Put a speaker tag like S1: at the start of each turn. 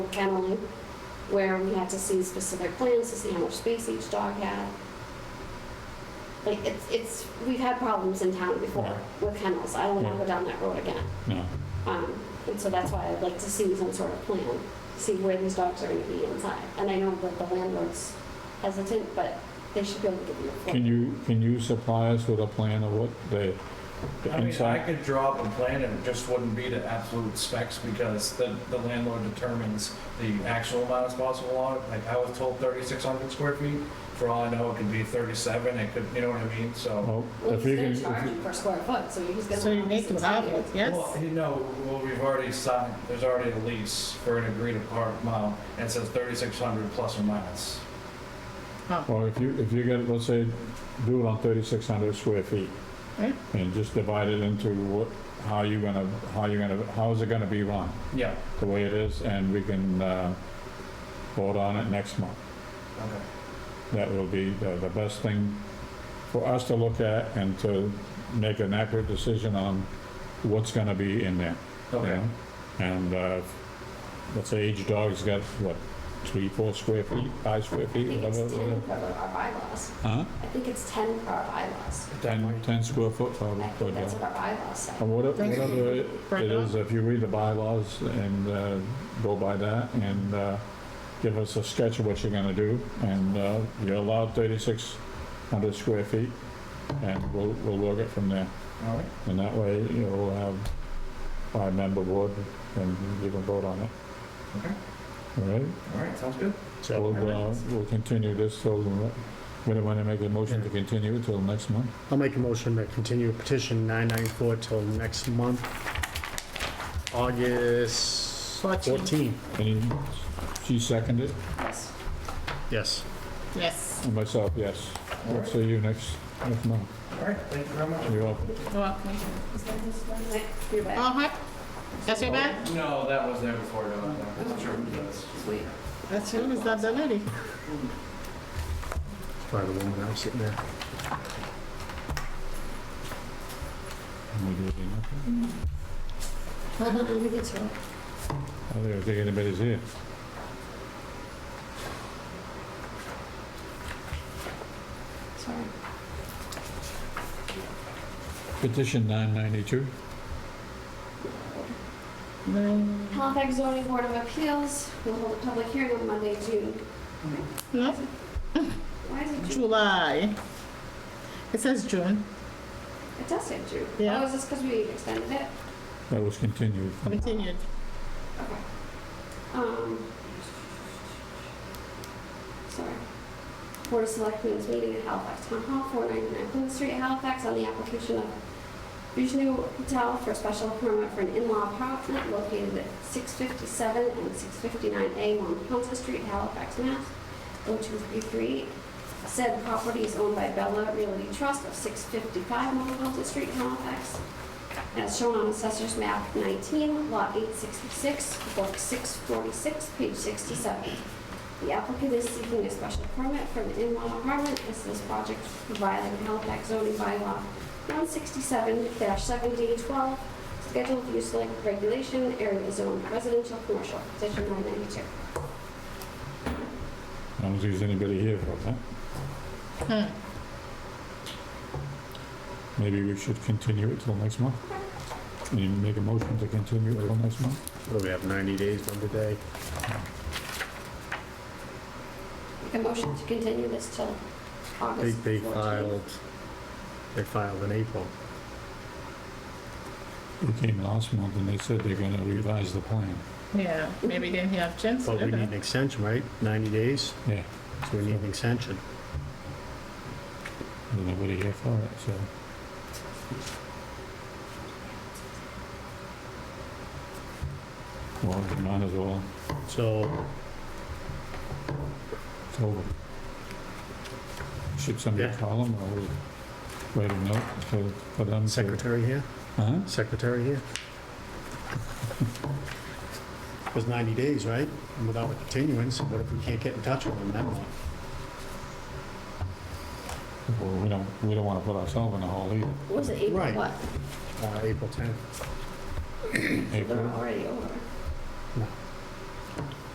S1: kenneling, where we had to see specific plans to see how much space each dog had. Like, it's, it's, we've had problems in town before
S2: Right.
S1: with kennels. I don't want to
S2: Yeah.
S1: go down that road again.
S2: No.
S1: Um, And so that's why I'd like to see some sort of plan, see where these dogs are going to be inside. And I know that the landlord's hesitant, but they should be able to give you a floor.
S2: Can you, can you supply us with a plan of what the the
S3: I mean, I
S2: inside?
S3: could draw up a plan and it just wouldn't be to absolute specs because the, the landlord determines the actual amount of possible lot. Like I was told thirty-six hundred square feet. For all I know, it could be thirty-seven. It could, you know what I mean? So.
S2: Well,
S1: Well,
S2: Oh, if
S1: he's
S2: you can,
S1: gonna
S2: if
S1: charge
S2: you-
S1: you per square foot, so he's gonna.
S4: So you
S1: have
S4: make them
S1: some value.
S4: obvious, yes?
S3: Well, you know, well, we've already signed, there's already a lease for an agreed upon amount and it says thirty-six hundred plus or minus.
S2: or if you, if you get, let's say, do it on thirty-six hundred square feet.
S4: Yeah.
S2: And just divide it into what, how you gonna, how you gonna, how is it gonna be run,
S3: Yeah,
S2: the way it is, and we can, uh, vote on it next month.
S3: okay.
S2: That will be the, the best thing for us to look at and to make an accurate decision on what's gonna be in there. you
S3: Okay.
S2: know? And, uh, let's say each dog's got, what, three, four square feet, five square
S1: I
S2: feet,
S1: think
S2: whatever?
S1: it's ten
S2: whatever.
S1: per our bylaws.
S2: Huh?
S1: I think it's ten per our bylaws.
S2: Ten, ten square foot,
S1: I
S2: probably, per
S1: think that's
S2: dog.
S1: what our bylaws say.
S2: Or whatever,
S4: Thank you.
S2: whatever it-
S4: Right
S2: it
S4: on.
S2: is, if you read the bylaws and, uh, go by that and, uh, give us a sketch of what you're gonna do, and, uh, you're allowed thirty-six hundred square feet, and we'll, we'll work it from there.
S3: All right.
S2: And that way, you know, we'll have five-member board, and you can vote on it.
S3: Okay.
S2: All right?
S3: All right, sounds good.
S2: So we'll, uh, we'll continue this till, we don't wanna make a motion to continue it till next month.
S5: I'll make a motion to continue petition 994 till next month, August
S4: Fourteen.
S5: 14th.
S2: Any, she seconded,
S1: Yes.
S5: Yes.
S4: Yes.
S2: and myself, yes.
S3: All
S2: We'll
S3: right.
S2: see you next, next month.
S3: All right, thank you very much.
S2: You're welcome.
S4: You're welcome.
S1: You're back.
S4: Uh-huh. That's your bag?
S3: No, that was there before, no, that was true. That's-
S1: Sweet.
S4: That's you, is that the lady?
S5: By the woman, I'm sitting there.
S2: We do anything else?
S1: Let me get to it.
S2: I don't think anybody's here.
S1: Sorry.
S2: Petition 992,
S4: Nine.
S1: Halifax zoning board of appeals will hold a public hearing on Monday, June.
S4: No,
S1: Why is it June?
S4: July. It says June.
S1: It does say June.
S4: Yeah.
S1: Oh, is this because we extended it?
S2: that was continued.
S4: Continued.
S1: Okay. Um. Sorry. Board of Selectmen's meeting at Halifax Town Hall, 499 Plymouth Street, Halifax, on the application of Vishnu Patel for special permit for an in-law apartment located at 657 and 659A on Ponce Street, Halifax, Mass. 02338. Said property is owned by Bella Realty Trust of 655 Mount Ponce Street, Halifax as shown on Assessor's Map 19, Lot 866, Book 646, page 67. The applicant is seeking a special permit for an in-law apartment as this project is violating Halifax zoning bylaw 167-7D12, Schedule of Use like Regulation, Area Zone Residential Commercial, Section 992.
S2: I don't think there's anybody here for that.
S4: Hmm.
S2: Maybe we should continue it till next month. Can you make a motion to continue it till next month?
S5: What do we have, 90 days from today?
S1: A motion to continue this till
S5: They,
S1: August 14th.
S5: they filed, they filed in April.
S2: We came last month and they said they're gonna revise the plan.
S4: Yeah, maybe they have chance.
S5: But we need an extension, right? 90 days?
S2: Yeah,
S5: So we need an extension.
S2: there's nobody here for it, so. Well, we might as well,
S5: So
S2: it's over. Should somebody
S5: Yeah.
S2: call them or we write a note for, for them to?
S5: secretary here,
S2: Huh?
S5: secretary here. It was 90 days, right? And without a continuance, what if we can't get in touch with them that month?
S2: Well, we don't, we don't wanna put ourselves in a hole either.
S1: Was it April
S5: Right.
S1: what?
S5: Uh, April 10th.
S1: They're
S2: April,
S1: already over.